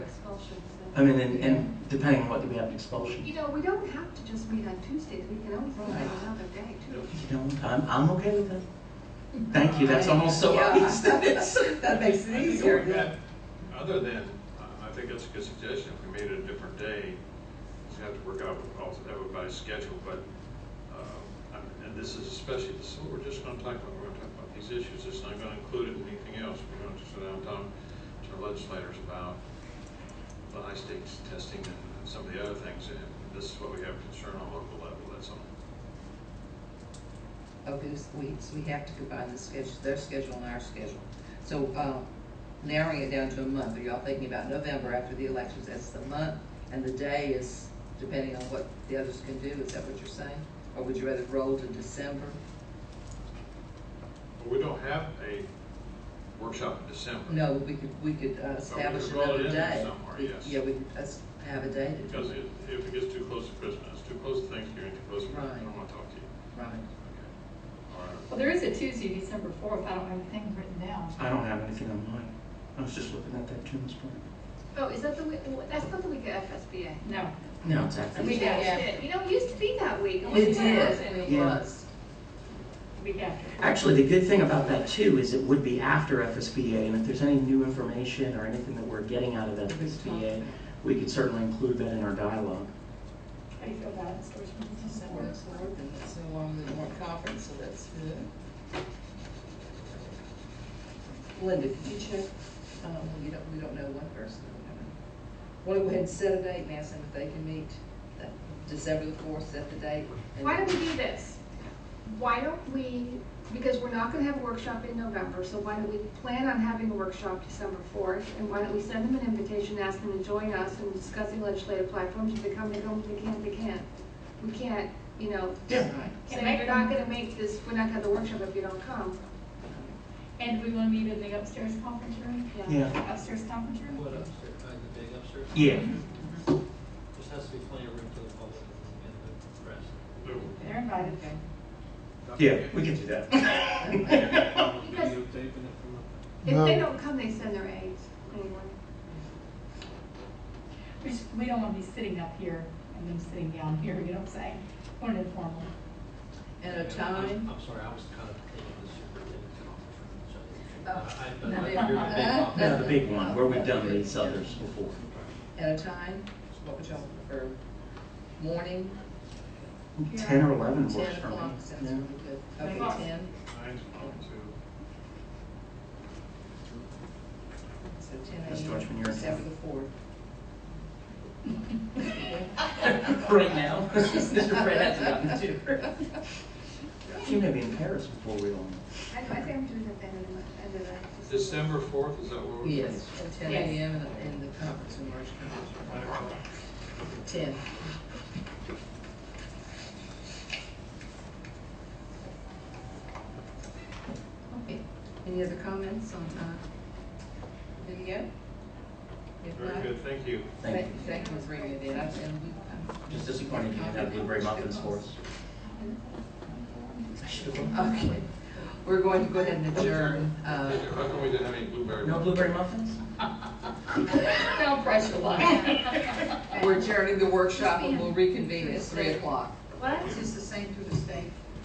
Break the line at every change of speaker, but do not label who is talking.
expulsions.
I mean, and, and depending on what, do we have an expulsion?
You know, we don't have to just meet on Tuesdays, we can always meet on another day too.
You know, I'm, I'm okay with that. Thank you, that's almost so
Yeah.
obvious that it's.
That makes
I
it
think
easier.
going back, Other than, um, I- I think that's a good suggestion, if we made it a different day, we have to work out with all- everybody's schedule, but, uh, I'm- and this is especially, this is what we're just gonna talk about, we're gonna talk about these issues, it's not gonna include it in anything else, we're gonna just sit down and talk to our legislators about the high stakes testing and some of the other things, and this is what we have concern on local level, that's all.
Of these weeks, we have to combine the schedule, their schedule and our schedule. So, um, narrowing it down to a month, are y'all thinking about November after the elections as the month? And the day is depending on what the others can do, is that what you're saying? Or would you rather roll to December?
But we don't have a workshop in December.
No, we could, we could uh, establish
could roll it
another
in
day.
somewhere,
We-
yes.
Yeah, we could uh, have a day to do
Because
it.
it- if it gets too close to Christmas, too close to Thanksgiving, too close to Christmas, I don't
Right.
want to talk to you.
Right.
Okay. All right.
Well, there is a Tuesday, December fourth, I don't have anything written down.
I don't have anything on mine. I was just looking at that Tunes plan.
Oh, is that the week, oh, that's not the week of FSBA.
No,
No, it's after.
We
this.
Yeah.
changed it, you know, it used to be that week. and we
It
didn't have
did,
it.
it
Yeah.
was.
week after.
Actually, the good thing about that too is it would be after FSBA, and if there's any new information or anything that we're getting out of FSBA, we could certainly include that in our dialogue.
How do you feel about it, Stores from December?
It's working, it's no longer the warrant conference, so that's good. Linda, could you check, um, you don't, we don't know one person. Want to go ahead and set a date and ask them if they can meet, that December the fourth, set the date. and-
Why don't we do this? Why don't we, because we're not gonna have a workshop in November, so why don't we plan on having a workshop December fourth? And why don't we send them an invitation, ask them to join us in discussing legislative platforms, if they come, they come, if they can't, they can't. We can't, you know,
Yeah.
say, you're not gonna make this, we're not gonna have the workshop if you don't come.
And we wanna meet in the upstairs conference room?
Yeah.
Upstairs conference room?
What upstairs, uh, the big upstairs?
Yeah.
There has to be plenty of room for the public and the press.
Lou,
They're invited.
Yeah, we can do that.
Because
Videotaping it from up-
if they don't come, they send their aides anyway.
We just, we don't wanna be sitting up here and them sitting down here, you know what I'm saying? We're an informal.
And a
Yeah,
time.
I'm- I'm sorry, I was kind of thinking the superintendent's office. room, so
Oh.
I- I- but
No.
I figured the big office.
No, the big one, where we've done these others before.
At a time, what would y'all prefer? Morning,
Ten or eleven
ten
works for me.
o'clock, sounds
Yeah.
really good. Okay,
O'clock.
ten,
Mine's on to
so ten
Ms. Deutschman, you're
AM,
in.
December the fourth.
Right now, Mr. Fred hasn't gotten to her. She may be in Paris before we all know.
I, I think I'm doing that end of the, month, end of the.
December fourth, is that what we're?
Yes, at ten
Yes.
AM in the, in the conference room, large conference room. Ten. Okay, any other comments on, uh, video? If
Very
not,
good, thank you.
Thank you.
thank- Thank you for bringing it in, I've been, we- uh,
Just disappointed you didn't have blueberry muffins for us. I should have.
I'm- okay. We're going to go ahead and adjourn, uh,
How come we didn't have any blueberry?
No
muffins?
blueberry muffins?
No pressure, Lon.
we're adjourning the workshop and we'll reconvene at three o'clock.
What?
Is this the same through the state?